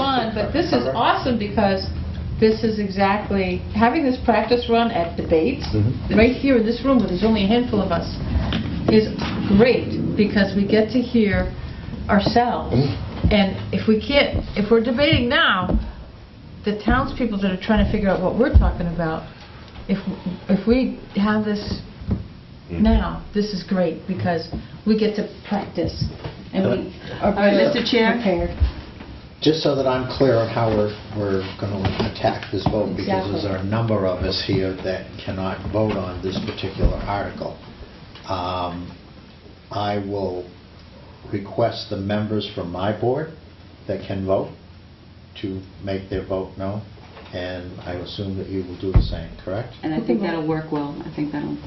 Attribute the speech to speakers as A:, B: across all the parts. A: but this is awesome because this is exactly, having this practice run at debates,
B: Mhm.
A: right here in this room, where there's only a handful of us, is great because we get to hear ourselves.
B: Mm-hmm.
A: And if we can't, if we're debating now, the townspeople that are trying to figure out what we're talking about, if, if we have this
B: Mm-hmm.
A: now, this is great because we get to practice and we are
C: All right, Mr. Chair?
A: prepared.
B: Just so that I'm clear on how we're, we're going to attack this vote, because there's a number of us here that cannot vote on this particular article. Um, I will request the members from my board that can vote to make their vote known, and I assume that you will do the same, correct?
C: And I think that'll work well. I think that'll,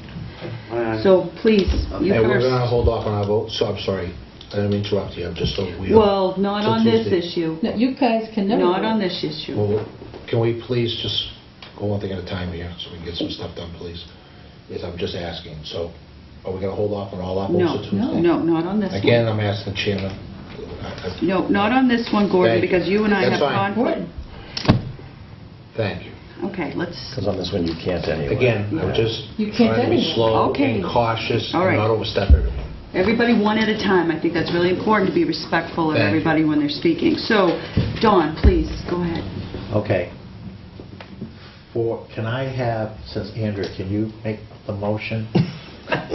D: Alright.
C: so please, you
E: Hey, we're
C: first.
E: gonna hold off on our vote, so I'm sorry, I didn't mean to interrupt you, I'm just so we...
C: Well, not
E: Till
C: on this
E: Tuesday.
C: issue.
A: No, You guys can never.
C: Not
A: vote.
C: on this issue.
E: Well, Can we please just go one thing at a time here, so we can get some stuff done, please? Yes, I'm just asking, so are we gonna hold off on all our
C: No,
E: votes till
C: no,
E: Tuesday?
C: no, not on this one.
E: Again, I'm asking the chairman. I- I-
C: No, not on this one, Gordon,
E: Thank you.
C: because you and I have
E: That's fine.
C: conflict.
E: Thank you.
C: Okay, let's,
D: Because on this one, you can't anyway.
E: Again, I'm
D: Yeah.
E: just
A: You can't
E: trying to be
A: anyway.
E: slow
C: Okay.
E: and cautious
C: All
E: and
C: right.
E: not overstep everyone.
C: everybody one at a time. I think that's really important to be respectful of
E: Thank you.
C: everybody when they're speaking. So, Dawn, please, go ahead.
B: Okay. For, can I have, since Andrea, can you make the motion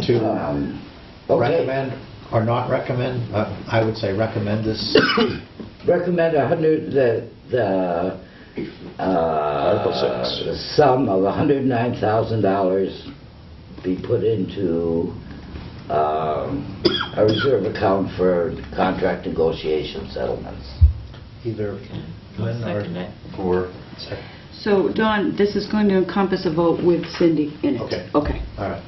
B: to
D: Um, Okay,
B: recommend or not recommend? Uh, I would say recommend this.
D: recommend a hundred, the, the, uh,
E: Article six.
D: sum of hundred and nine thousand dollars be put into, um, a reserve account for contract negotiation settlements.
B: either Lynn
A: Second
B: or... Or...
A: it.
B: second.
C: So, Dawn, this is going to encompass a vote with Cindy in it.
B: Okay.
C: Okay.
B: All right.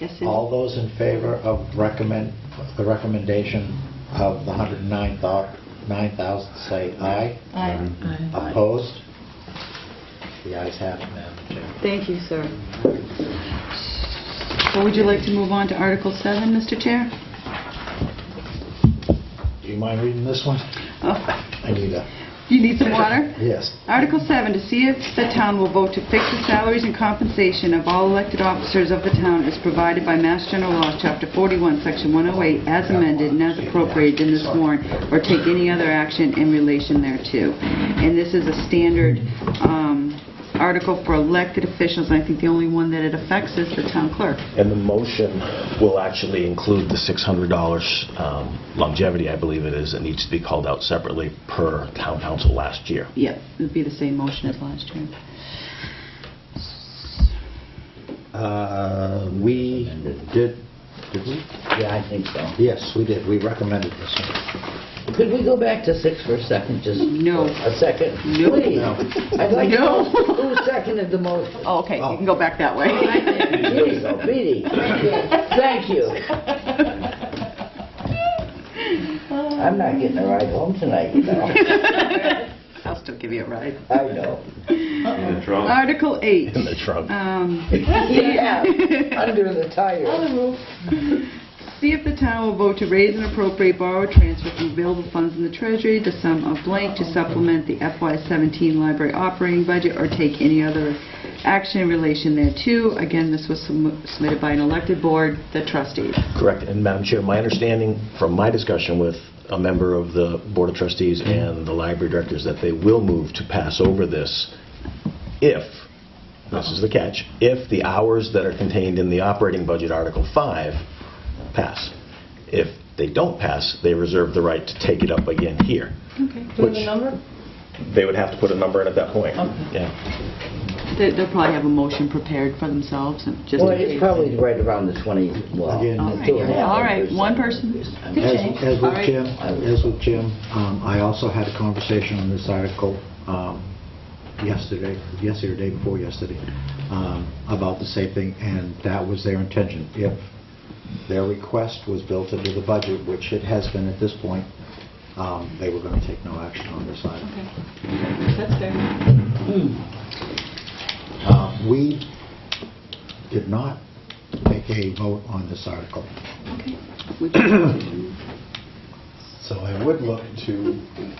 C: Yes, Cindy?
B: All those in favor of recommend, the recommendation of the 109,000, say aye.
A: Aye.
C: Aye.
B: Opposed? The ayes have it, Madam Chair.
C: Thank you, sir. So would you like to move on to Article 7, Mr. Chair?
B: Do you mind reading this one?
C: Oh,
B: I need a,
C: You need some water?
B: yes.
C: Article 7, to see if the town will vote to fix the salaries and compensation of all elected officers of the town as provided by Mass General Law, Chapter 41, Section 108, as amended and as appropriated in this warrant, or take any other action in relation thereto. And this is a standard um, article for elected officials, and I think the only one that it affects is the town clerk.
F: And the motion will actually include the $600 um, longevity, I believe it is, that needs to be called out separately per town council last year.
C: Yep, it'd be the same motion as last year.
B: Uh, We did, did we?
D: Yeah, I think so.
B: Yes, we did. We recommended this one.
D: Could we go back to six for a second, just?
C: No.
D: A second?
C: No.
D: Please.
B: No.
D: I'd like to
C: No.
D: know who seconded the motion.
C: Oh, okay, you can go back that way.
D: Here you go, Petey. Thank you. I'm not getting a ride home tonight, you know.
C: I'll still give you a ride.
D: I know.
C: Article 8.
F: In the trunk.
C: Um,
D: Yeah, under the
A: On
D: tire.
A: the roof.
C: See if the town will vote to raise and appropriate borrow or transfer from available funds in the treasury the sum of blank to supplement the FY17 library operating budget or take any other action in relation thereto. Again, this was sum- submitted by an elected board, the trustees.
F: Correct. And Madam Chair, my understanding from my discussion with a member of the Board of Trustees and the library directors that they will move to pass over this if, this is the catch, if the hours that are contained in the operating budget Article 5 pass. If they don't pass, they reserve the right to take it up again here.
A: Do we have a
F: Which-
A: number?
F: They would have to put a number in at that point. Yeah.
C: They- They'll probably have a motion prepared for themselves and just...
D: Well, it's probably right around the 20, well.
B: Again,
C: All right,
D: two and a
C: yeah,
D: half
C: all right, one
D: percent.
C: person.
D: I mean,
B: As
A: change.
B: as
C: All
B: with
C: right.
B: Jim, uh, as with Jim, um, I also had a conversation on this article um, yesterday, yesterday, or day before yesterday, um, about the same thing, and that was their intention. If their request was built into the budget, which it has been at this point, um, they were going to take no action on this item.
C: That's fair.
B: Uh, We did not take a vote on this article,
C: Would you-
B: so I would look to